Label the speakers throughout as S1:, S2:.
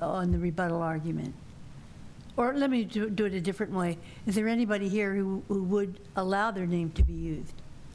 S1: on the rebuttal argument? Or let me do do it a different way. Is there anybody here who who would allow their name to be used?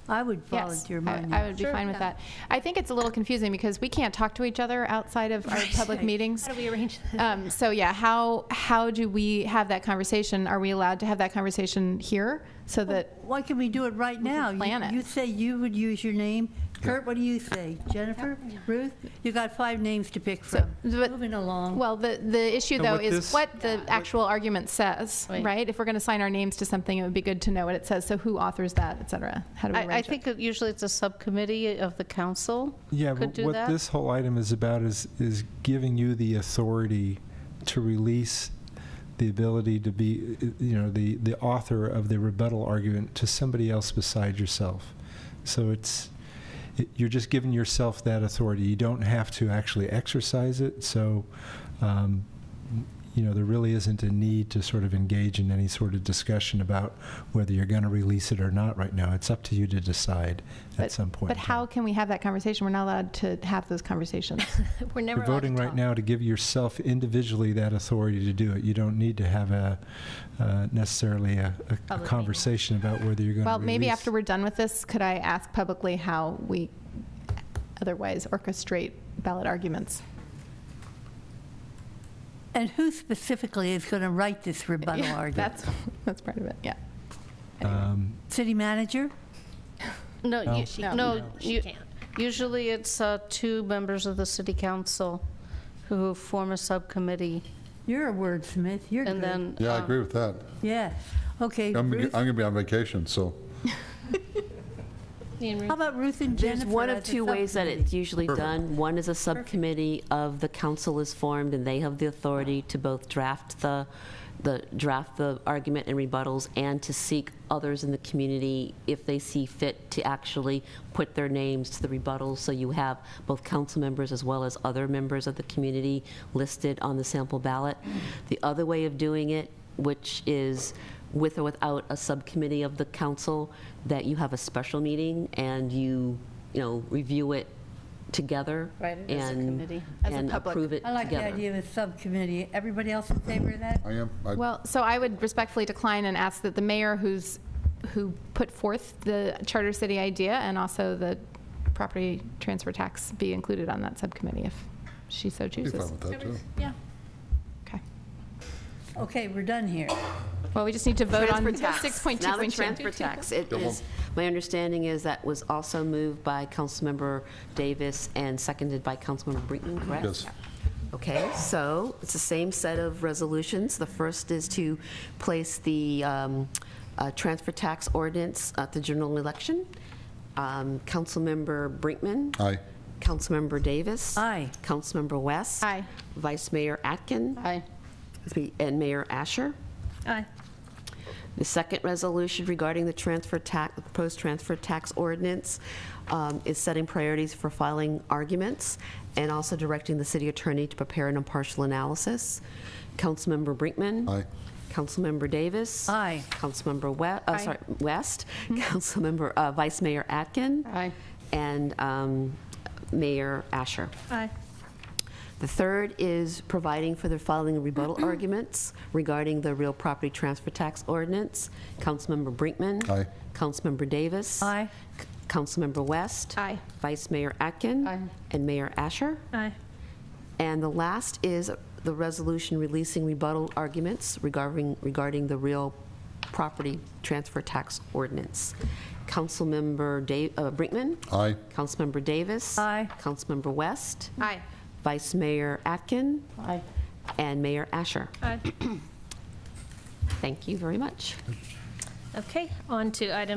S1: I would
S2: Yes,
S1: volunteer my
S2: I-
S1: name.
S2: I would be
S3: Sure,
S2: fine with
S3: yeah.
S2: that. I think it's a little confusing because we can't talk to each other outside of our public meetings.
S3: How do we arrange that?
S2: Um, So yeah, how, how do we have that conversation? Are we allowed to have that conversation here so that,
S1: Why can't we do it right now? You-
S2: plan it.
S1: You say you would use your name. Kurt, what do you say? Jennifer? Ruth? You got five names to pick
S2: So, uh,
S1: from.
S2: but-
S1: Moving along.
S2: well, the, the issue
S4: And
S2: though
S4: what
S2: is
S4: this-
S2: what the actual argument says,
S3: Right.
S2: right? If we're going to sign our names to something, it would be good to know what it says. So who authors that, et cetera? How do we
S3: I, I
S2: arrange
S3: think
S2: it?
S3: that usually it's a subcommittee of the council.
S4: Yeah,
S3: could
S4: but
S3: do
S4: what
S3: that.
S4: this whole item is about is is giving you the authority to release the ability to be, uh, you know, the the author of the rebuttal argument to somebody else beside yourself. So it's it, you're just giving yourself that authority. You don't have to actually exercise it. So. Um, you know, there really isn't a need to sort of engage in any sort of discussion about whether you're going to release it or not right now. It's up to you to decide at
S2: But-
S4: some point.
S2: But
S4: in time.
S2: how can we have that conversation? We're not allowed to have those conversations.
S3: We're never
S4: You're voting right now to give yourself individually that authority to do it. You don't need to have a, uh, necessarily a, a- a
S3: meeting.
S4: conversation about whether you're going to
S2: Well,
S4: release.
S2: maybe after we're done with this, could I ask publicly how we otherwise orchestrate ballot arguments?
S1: And who specifically is going to write this rebuttal
S2: Yeah,
S1: argument?
S2: That's, that's part of it, yeah.
S4: Um,
S1: City manager?
S3: No,
S4: No.
S3: you-
S4: She
S3: no,
S4: can't.
S3: you- usually it's uh, two members of the city council who form a subcommittee,
S1: You're a wordsmith. You're
S3: and
S1: good.
S3: then.
S5: Yeah, I
S3: um,
S5: agree with that.
S1: Yeah. Okay.
S5: I'm, I'm
S1: Ruth?
S5: gonna be on vacation, so
S3: Ian Reed?
S1: How about Ruth and Jennifer?
S6: There's one
S1: as
S6: of
S1: a
S6: two ways that
S1: subcommittee?
S6: it's usually done. One is a subcommittee of the council is formed, and they have the authority to both draft the, the, draft the argument and rebuttals, and to seek others in the community, if they see fit, to actually put their names to the rebuttals. So you have both council members as well as other members of the community listed on the sample ballot. The other way of doing it, which is with or without a subcommittee of the council, that you have a special meeting and you, you know, review it together.
S3: Right, it is a
S6: and-
S3: committee.
S2: As a
S6: And
S2: public-
S6: approve it
S1: I like the
S6: together.
S1: idea of a subcommittee. Everybody else in favor of that?
S5: I am, I-
S2: Well, so I would respectfully decline and ask that the mayor who's, who put forth the charter city idea and also the property transfer tax be included on that subcommittee if she so
S5: I'd be
S2: chooses.
S5: fine with that, too.
S2: Okay.
S1: Okay, we're done here.
S2: Well, we just need to vote on
S6: Transfer tax.
S2: 6.2.2.
S6: Now the transfer tax. It
S5: Double.
S6: is, my understanding is that was also moved by Councilmember Davis and seconded by Councilmember Brinkman, correct?
S5: Yes.
S6: Okay, so it's the same set of resolutions. The first is to place the um, uh, transfer tax ordinance at the general election. Um, Councilmember Brinkman.
S5: Aye.
S6: Councilmember Davis.
S1: Aye.
S6: Councilmember West.
S2: Aye.
S6: Vice Mayor Atkin.
S3: Aye.
S6: And Mayor Asher.
S3: Aye.
S6: The second resolution regarding the transfer tax, the proposed transfer tax ordinance um, is setting priorities for filing arguments and also directing the city attorney to prepare an impartial analysis. Councilmember Brinkman.
S5: Aye.
S6: Councilmember Davis.
S1: Aye.
S6: Councilmember West, uh, sorry, West. Councilmember, uh, Vice Mayor Atkin.
S3: Aye.
S6: And um, Mayor Asher.
S3: Aye.
S6: The third is providing for the following rebuttal arguments regarding the real property transfer tax ordinance. Councilmember Brinkman.
S5: Aye.
S6: Councilmember Davis.
S1: Aye.
S6: C- Councilmember West.
S2: Aye.
S6: Vice Mayor Atkin.
S3: Aye.
S6: And Mayor Asher.
S3: Aye.
S6: And the last is the resolution releasing rebuttal arguments regarding, regarding the real property transfer tax ordinance. Councilmember Da- uh, Brinkman.
S5: Aye.
S6: Councilmember Davis.
S1: Aye.
S6: Councilmember West.
S2: Aye.
S6: Vice Mayor Atkin
S3: Aye.
S6: and Mayor Asher.
S7: Aye.
S6: Thank you very much.
S7: Okay, on to item